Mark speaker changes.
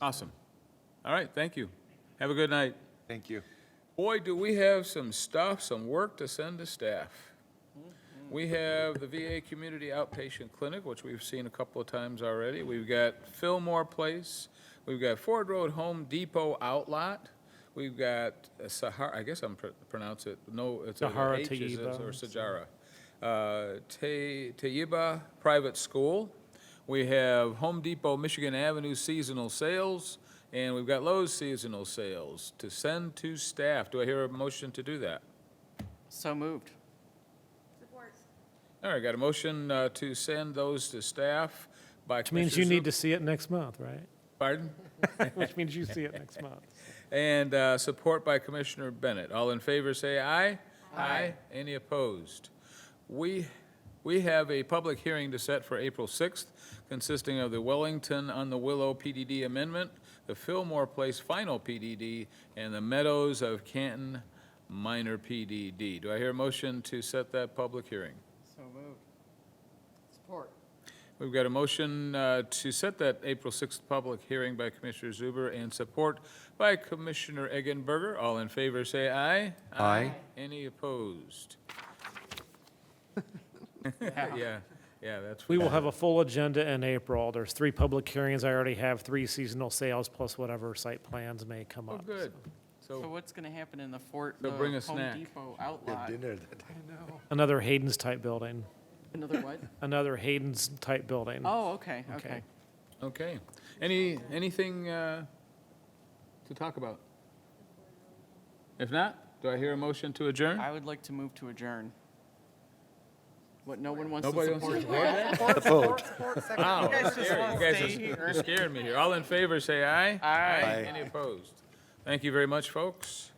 Speaker 1: Awesome. All right, thank you. Have a good night.
Speaker 2: Thank you.
Speaker 1: Boy, do we have some stuff, some work to send to staff. We have the VA Community Outpatient Clinic, which we've seen a couple of times already. We've got Fillmore Place. We've got Ford Road Home Depot Outlet. We've got uh, Sahara, I guess I'm pr- pronounce it, no, it's a
Speaker 3: Sahara
Speaker 1: H, is it,
Speaker 3: Tayyiba.
Speaker 1: or Sajara. Uh, Tay- Tayyiba Private School. We have Home Depot Michigan Avenue Seasonal Sales, and we've got Lowe's Seasonal Sales to send to staff. Do I hear a motion to do that?
Speaker 4: So moved.
Speaker 1: All right, got a motion uh, to send those to staff by
Speaker 3: Which means
Speaker 1: Commissioner
Speaker 3: you need
Speaker 1: Zup-
Speaker 3: to see it next month, right?
Speaker 1: Pardon?
Speaker 3: Which means you see it next month.
Speaker 1: And uh, support by Commissioner Bennett. All in favor, say aye. Aye. Any opposed? We, we have a public hearing to set for April 6th consisting of the Wellington on the Willow PDD amendment, the Fillmore Place final PDD, and the Meadows of Canton minor PDD. Do I hear a motion to set that public hearing?
Speaker 4: So moved. Support.
Speaker 1: We've got a motion uh, to set that April 6th public hearing by Commissioner Zuber and support by Commissioner Eggenberger. All in favor, say aye.
Speaker 2: Aye.
Speaker 1: Any opposed? Yeah, yeah, that's.
Speaker 3: We will have a full agenda in April. There's three public hearings. I already have three seasonal sales plus whatever site plans may come
Speaker 1: Oh,
Speaker 3: up.
Speaker 1: good.
Speaker 4: So
Speaker 1: So,
Speaker 4: what's going to happen in the Fort,
Speaker 1: So
Speaker 4: the
Speaker 1: bring a
Speaker 4: Home
Speaker 1: snack.
Speaker 4: Depot outlot?
Speaker 3: Another Hayden's type building,
Speaker 4: Another what?
Speaker 3: another Hayden's type building.
Speaker 4: Oh, okay,
Speaker 3: Okay.
Speaker 4: okay.
Speaker 1: okay. Any, anything uh, to talk about? If not, do I hear a motion to adjourn?
Speaker 4: I would like to move to adjourn. What, no one wants to
Speaker 1: Nobody wants to
Speaker 4: support?
Speaker 1: support that? Wow,
Speaker 4: You guys
Speaker 1: that's
Speaker 4: just
Speaker 1: scary.
Speaker 4: wanna
Speaker 1: You guys
Speaker 4: stay
Speaker 1: are s-
Speaker 4: here.
Speaker 1: you're scaring me here. All in favor, say aye.
Speaker 4: Aye.
Speaker 1: Any opposed? Thank you very much, folks.